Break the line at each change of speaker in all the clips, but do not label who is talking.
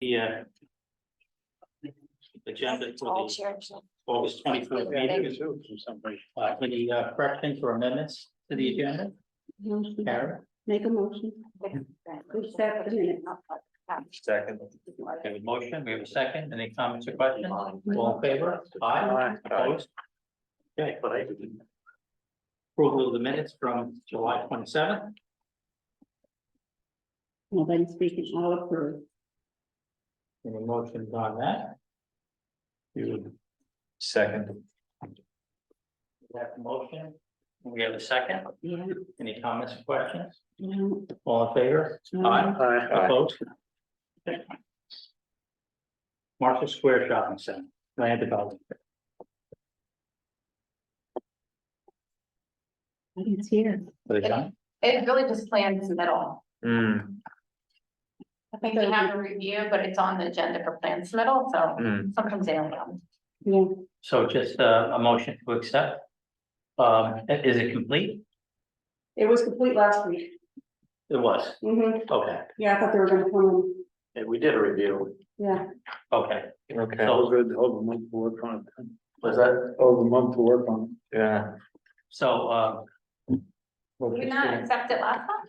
the uh, agenda for
All
the
chairs.
August twenty fourth meeting. Uh, Any uh, corrections or amendments to the agenda?
Motion.
Karen?
Make a motion. We set the minutes.
Second.
We have a motion, we have a second, any comments or questions? All in favor? Aye. Opposed? Okay. Approval of the minutes from July twenty seventh,
Well, then speaking all approved.
any motions on that? You
Second.
have a motion, we have a second,
Yeah.
any comments or questions?
no,
All in favor?
Um,
Aye. Opposed? Marshall Square Shopping Center, land development.
I didn't see it.
Are they done?
It really just plans middle.
Hmm,
I think we have a review, but it's on the agenda for plans middle, so
hmm.
sometimes they don't. come.
Yeah,
So just uh, a motion to accept. Um, is it complete?
it was complete last week.
It was,
hmm
okay,
yeah, I thought they were gonna come in,
And we did a review.
yeah.
okay.
Okay,
So-
Over, over a month to work on it.
Was that?
Over a month to work on it.
yeah.
So, um. we'll
Did you
just
not
do-
accept it last time?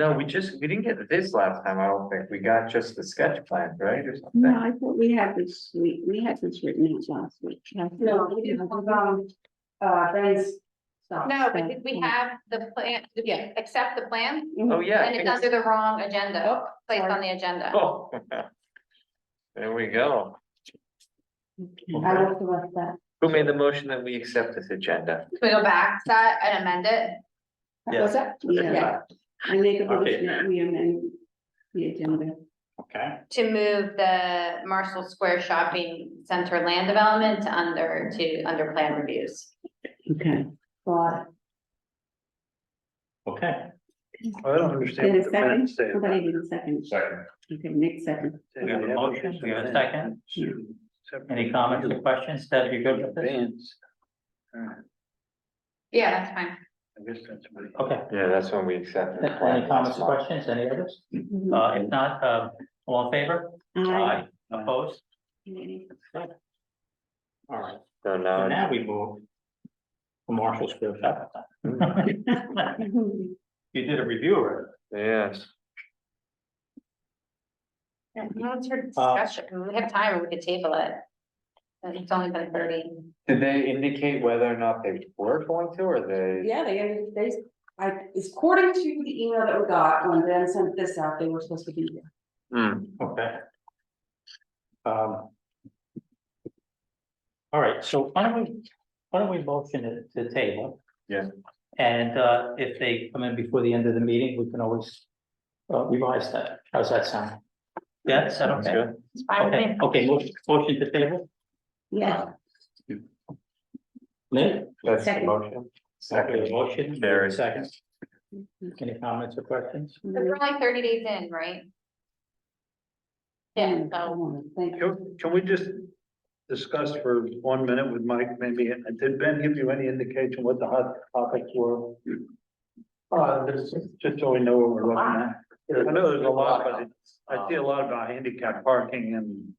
No, we just, we didn't get this last time, I don't think. We got just the sketch plan, right, or
No,
something?
I thought we had this week, we had this written out last week. No, we didn't, um, uh, Ben's. Mm-hmm.
No, but did we have the plan, did we accept the plan?
Oh, yeah. I
And it's
think-
under the wrong agenda, placed on the agenda.
Oh. There we go.
I will correct that.
Who made the motion that we accept this agenda?
Can we go back to that and amend it?
Yeah,
that? Yeah, I make a
Okay.
motion that we amend the agenda.
okay,
to move the Marshall Square Shopping Center land development to under, to under plan reviews.
Okay. Got
okay.
I don't understand.
Did a
what the minutes say
it.
about
Somebody did a second.
Second.
Okay, Nick second.
We have a motion, we have a second.
Separate-
Any comments or questions? Deb, you good with this?
Advance. All right,
Yeah, that's fine.
I guess that's what it-
Okay.
Yeah, that's when we accepted. the plan
Any comments
last
or
month.
questions? Any others? Uh, if not, uh, all in favor?
Aye.
Opposed?
Aye.
All right,
So
so
now,
now we move. to Marshall Square Shopping. Center. You did a review already.
yes,
No, it's your discussion. We have time, we could table it. And It's only been thirty.
did they indicate whether or not they were going to, or they?
Yeah, they, they, I, it's according to the email that we got when Dan sent this out, they were supposed to be here.
Hmm,
Okay. Oh, Um. All right, so why don't we, why don't we motion it to table?
Yeah.
And uh, if they come in before the end of the meeting, we can always uh, revise that. How's that sound? Yeah, is that
sounds
okay?
good.
It's fine with me.
Okay, okay, motion, motion to table,
Yeah,
Lynn?
That's the
Second.
motion.
Okay,
Second,
Motion,
Barry.
second. Any comments or questions?
But We're only thirty days in, right? Yeah, so
Thank you.
Can, can we just discuss for one minute with Mike, maybe, did Ben give you any indication what the hot topics were? Uh, there's. Just so we know what we're looking at. I know there's a lot, but it- I see
um,
a lot about handicap parking and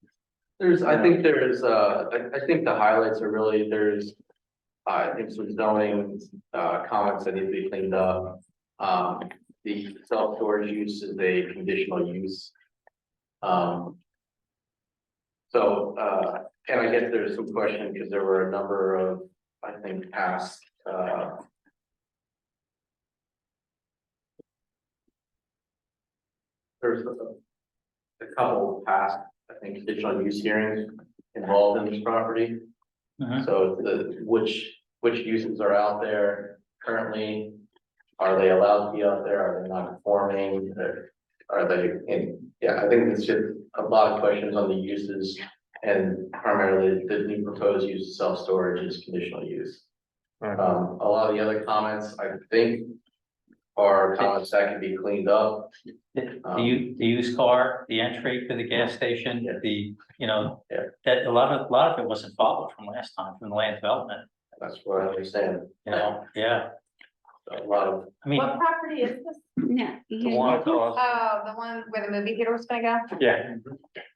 There's, I think there's, uh, I, I think the highlights are really, there's, uh, I think some zoning, uh, comments that need to be cleaned up. Um, the self-storage use is a conditional use. Um. So, uh, and I guess there's some question, because there were a number of, I think, past, uh. There's a, a couple past I think, conditional use hearings involved in this property.
Mhm.
So the, which, which uses are out there currently? Are they allowed to be out there? Are they not conforming? Are- Are they, and, yeah, I think it's just a lot of questions on the uses. And primarily, the new proposed use of self-storage is conditional use.
Okay.
Um, a lot of the other comments, I think, are comments that can be cleaned up.
The, the u- the used car, the entry to the gas station,
Um, Yeah.
the, you know,
Yeah.
that a lot of, a lot of it wasn't followed from last time, from the land development,
That's what I understand.
you know, yeah.
A lot of
I mean,
what property is this?
Yeah.
The one across-
Oh, the one where the movie theater was gonna go?
yeah,